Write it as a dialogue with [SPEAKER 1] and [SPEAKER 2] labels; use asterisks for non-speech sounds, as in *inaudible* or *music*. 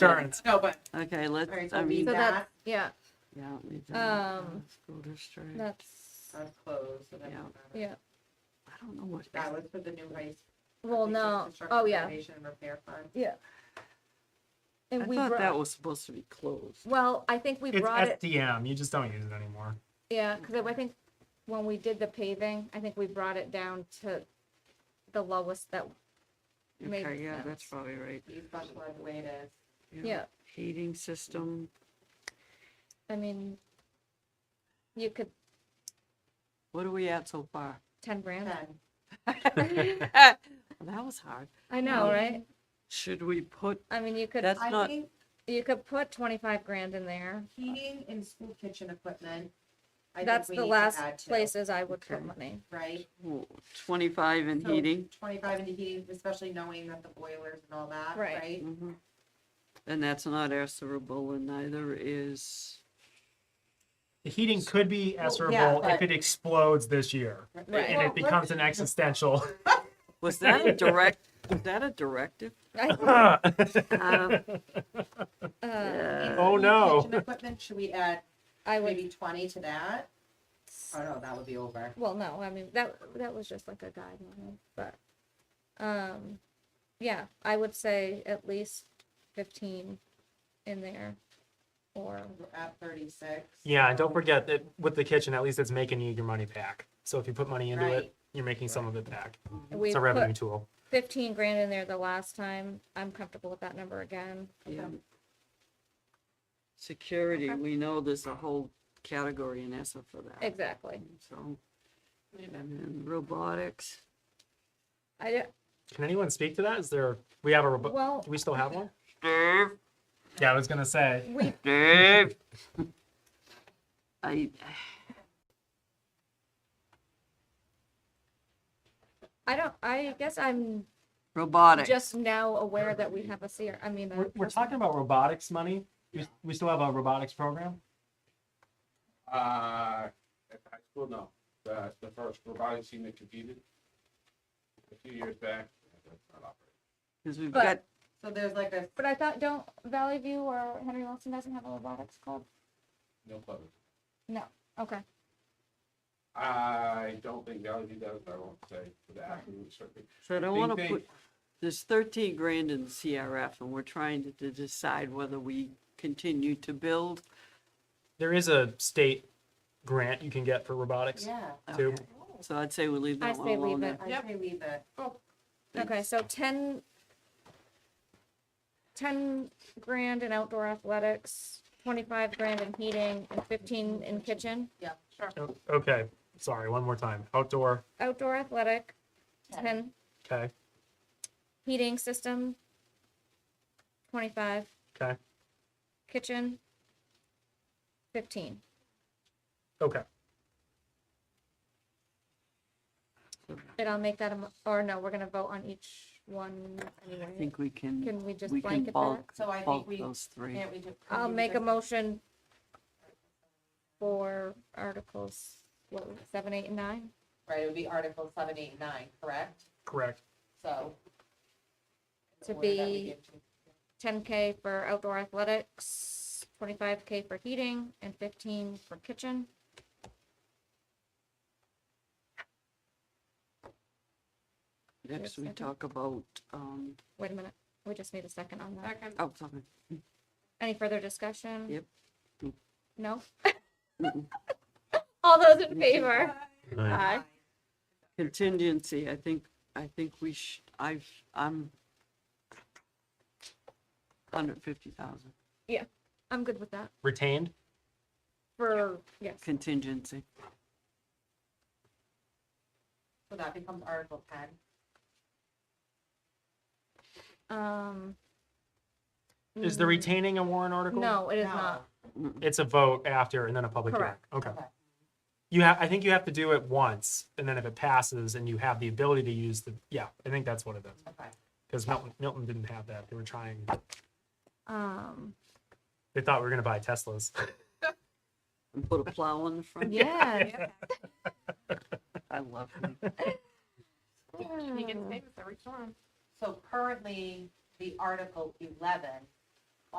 [SPEAKER 1] concerns.
[SPEAKER 2] No, but
[SPEAKER 3] Okay,
[SPEAKER 4] Alright,
[SPEAKER 3] let's,
[SPEAKER 4] so
[SPEAKER 3] I
[SPEAKER 4] leave
[SPEAKER 3] mean, yeah.
[SPEAKER 4] that.
[SPEAKER 5] So that's, yeah,
[SPEAKER 3] leave that,
[SPEAKER 5] Um,
[SPEAKER 3] uh, School district, I
[SPEAKER 5] that's,
[SPEAKER 4] I'm closed, so that
[SPEAKER 3] Yeah.
[SPEAKER 4] doesn't matter.
[SPEAKER 5] yeah,
[SPEAKER 3] don't know what.
[SPEAKER 4] That was for the new high. s-
[SPEAKER 5] well,
[SPEAKER 4] we said
[SPEAKER 5] no,
[SPEAKER 4] construction,
[SPEAKER 5] oh, yeah,
[SPEAKER 4] Renovation and repair fund.
[SPEAKER 5] yeah.
[SPEAKER 3] I
[SPEAKER 5] And we
[SPEAKER 3] thought that
[SPEAKER 5] brought,
[SPEAKER 3] was supposed to be closed.
[SPEAKER 5] well, I think we
[SPEAKER 1] It's
[SPEAKER 5] brought it,
[SPEAKER 1] SDM. You just don't use it anymore.
[SPEAKER 5] yeah, because I think when we did the paving, I think we brought it down to the lowest that, Made
[SPEAKER 3] Okay, yeah, that's
[SPEAKER 5] sense.
[SPEAKER 3] probably right.
[SPEAKER 4] You special ed way to,
[SPEAKER 5] yeah,
[SPEAKER 3] Heating system,
[SPEAKER 5] I mean, you could,
[SPEAKER 3] what are we at so far?
[SPEAKER 5] ten grand,
[SPEAKER 4] ten,
[SPEAKER 3] Well, That was hard.
[SPEAKER 5] I know, right?
[SPEAKER 3] Should we put,
[SPEAKER 5] I mean, you could,
[SPEAKER 3] that's
[SPEAKER 4] I
[SPEAKER 3] not,
[SPEAKER 4] think
[SPEAKER 5] you could put twenty-five grand in there,
[SPEAKER 4] heating and school kitchen equipment. I think
[SPEAKER 5] that's
[SPEAKER 4] we
[SPEAKER 5] the
[SPEAKER 4] need to
[SPEAKER 5] last
[SPEAKER 4] add to,
[SPEAKER 5] places I would put
[SPEAKER 4] *laughs*
[SPEAKER 3] Okay.
[SPEAKER 5] money.
[SPEAKER 4] Right?
[SPEAKER 3] ooh, twenty-five in
[SPEAKER 4] So
[SPEAKER 3] heating?
[SPEAKER 4] Twenty-five into heating, especially knowing that the boilers and all that,
[SPEAKER 5] Right.
[SPEAKER 4] right?
[SPEAKER 3] Mhm. And that's not answerable and neither is,
[SPEAKER 1] The heating could be
[SPEAKER 4] Well,
[SPEAKER 1] answerable
[SPEAKER 4] yeah,
[SPEAKER 1] if
[SPEAKER 4] but-
[SPEAKER 1] it explodes this year and
[SPEAKER 4] Well,
[SPEAKER 1] it becomes an existential.
[SPEAKER 4] *laughs*
[SPEAKER 1] *laughs*
[SPEAKER 3] was that a
[SPEAKER 5] *laughs*
[SPEAKER 3] direct, was that a directive?
[SPEAKER 5] I-
[SPEAKER 1] I
[SPEAKER 3] Um,
[SPEAKER 5] uh,
[SPEAKER 3] yeah.
[SPEAKER 1] Oh,
[SPEAKER 4] Heating,
[SPEAKER 1] no.
[SPEAKER 4] Kitchen equipment, should we add
[SPEAKER 5] I would,
[SPEAKER 4] maybe twenty to that? Oh, no, that would be over.
[SPEAKER 5] well, no, I mean, that, that was just like a guideline, but, um, yeah, I would say at least fifteen in there. Or,
[SPEAKER 4] We're At thirty-six.
[SPEAKER 1] yeah, and don't forget that with the kitchen, at least it's making you your money back. So if you put money into
[SPEAKER 4] Right.
[SPEAKER 1] it, you're making some of it back.
[SPEAKER 5] we
[SPEAKER 1] it's a revenue
[SPEAKER 5] put
[SPEAKER 1] tool.
[SPEAKER 5] fifteen grand in there the last time, I'm comfortable with that number again,
[SPEAKER 3] Yeah. Security, we know there's a whole category in ESSA for that,
[SPEAKER 5] exactly.
[SPEAKER 3] so. And then robotics,
[SPEAKER 5] I, don't-
[SPEAKER 1] Can anyone speak to that? Is there, we have a, robo-
[SPEAKER 5] Well-
[SPEAKER 1] do we still have one?
[SPEAKER 3] Dave,
[SPEAKER 1] Yeah, I was going to say.
[SPEAKER 5] we,
[SPEAKER 3] Dave. I,
[SPEAKER 5] I don't, I guess I'm
[SPEAKER 3] robotics.
[SPEAKER 5] just now aware that we have a CR, I mean, a
[SPEAKER 1] We're, we're
[SPEAKER 5] person.
[SPEAKER 1] talking about robotics money. We, we still have a robotics program.
[SPEAKER 6] Uh, at the high school, no. The, the first robotics team that competed a few years back. that's not operating.
[SPEAKER 3] Because we've
[SPEAKER 5] But-
[SPEAKER 3] got,
[SPEAKER 4] So there's like a,
[SPEAKER 5] But I thought, don't Valley View or Henry Wilson doesn't have a robotics club?
[SPEAKER 6] No club.
[SPEAKER 5] No, okay,
[SPEAKER 6] I don't think Valley View does, I won't say for the absolute certainty.
[SPEAKER 3] so I don't
[SPEAKER 6] Think
[SPEAKER 3] want to
[SPEAKER 6] they-
[SPEAKER 3] put, there's thirteen grand in CRF and we're trying to- to decide whether we continue to build.
[SPEAKER 1] There is a state grant you can get for robotics
[SPEAKER 4] yeah.
[SPEAKER 1] too.
[SPEAKER 3] Okay, So I'd say we leave
[SPEAKER 5] I
[SPEAKER 3] that one
[SPEAKER 5] say leave
[SPEAKER 3] alone.
[SPEAKER 5] it.
[SPEAKER 4] I
[SPEAKER 2] Yep.
[SPEAKER 4] say leave it.
[SPEAKER 5] okay, so ten, ten grand in outdoor athletics, twenty-five grand in heating, and fifteen in kitchen.
[SPEAKER 1] O- Oh, Okay, sorry, one more time. Outdoor,
[SPEAKER 5] Outdoor athletic,
[SPEAKER 4] Ten.
[SPEAKER 5] ten,
[SPEAKER 1] okay,
[SPEAKER 5] heating system, twenty-five,
[SPEAKER 1] okay,
[SPEAKER 5] kitchen, fifteen.
[SPEAKER 1] okay.
[SPEAKER 5] And I'll make that, a mo- or no, we're gonna vote on each one
[SPEAKER 3] I
[SPEAKER 5] anyway.
[SPEAKER 3] think we can,
[SPEAKER 5] Can we just
[SPEAKER 3] we can
[SPEAKER 5] blanket that?
[SPEAKER 3] bulk,
[SPEAKER 4] So I think
[SPEAKER 3] bulk
[SPEAKER 4] we-
[SPEAKER 3] those three.
[SPEAKER 4] Can't we do? can
[SPEAKER 5] I'll
[SPEAKER 4] we do
[SPEAKER 5] make a
[SPEAKER 4] like-
[SPEAKER 5] motion for articles, what, was it, seven, eight, and nine?
[SPEAKER 4] Right, it would be Article seven, eight, nine, correct?
[SPEAKER 1] Correct.
[SPEAKER 4] So.
[SPEAKER 5] To
[SPEAKER 4] What did that
[SPEAKER 5] be-
[SPEAKER 4] give to-
[SPEAKER 5] Ten K for outdoor athletics, twenty-five K for heating, and fifteen for kitchen.
[SPEAKER 3] Next, we
[SPEAKER 5] Second.
[SPEAKER 3] talk about, um,
[SPEAKER 5] Wait a minute, we just need a second on that.
[SPEAKER 2] second,
[SPEAKER 3] oh, sorry.
[SPEAKER 5] Any further discussion?
[SPEAKER 3] Yep.
[SPEAKER 5] No?
[SPEAKER 3] Mm-mm.
[SPEAKER 5] All those in favor?
[SPEAKER 1] Uh,
[SPEAKER 5] Aye.
[SPEAKER 3] Contingency, I think, I think we should, I've, I'm hundred fifty thousand
[SPEAKER 5] I'm good with that.
[SPEAKER 1] Retained.
[SPEAKER 5] For, yes,
[SPEAKER 3] contingency.
[SPEAKER 4] So that becomes Article ten.
[SPEAKER 5] um.
[SPEAKER 1] Is the
[SPEAKER 5] mm,
[SPEAKER 1] retaining a warrant article?
[SPEAKER 5] No, it is
[SPEAKER 4] No.
[SPEAKER 5] not.
[SPEAKER 3] Mm-hmm.
[SPEAKER 1] It's a vote after and then a public hearing.
[SPEAKER 5] Correct.
[SPEAKER 1] Okay.
[SPEAKER 4] Okay.
[SPEAKER 1] You have, I think you have to do it once and then if it passes and you have the ability to use the, yeah, I think that's what it is.
[SPEAKER 4] Okay.
[SPEAKER 1] Because Milton, Milton didn't have that. They were trying,
[SPEAKER 5] Um,
[SPEAKER 1] *laughs* they thought we were going to buy Teslas.
[SPEAKER 3] And put a plow in the front.
[SPEAKER 5] yeah.
[SPEAKER 3] I love it.
[SPEAKER 2] you can stay with every one.
[SPEAKER 4] So currently, the Article eleven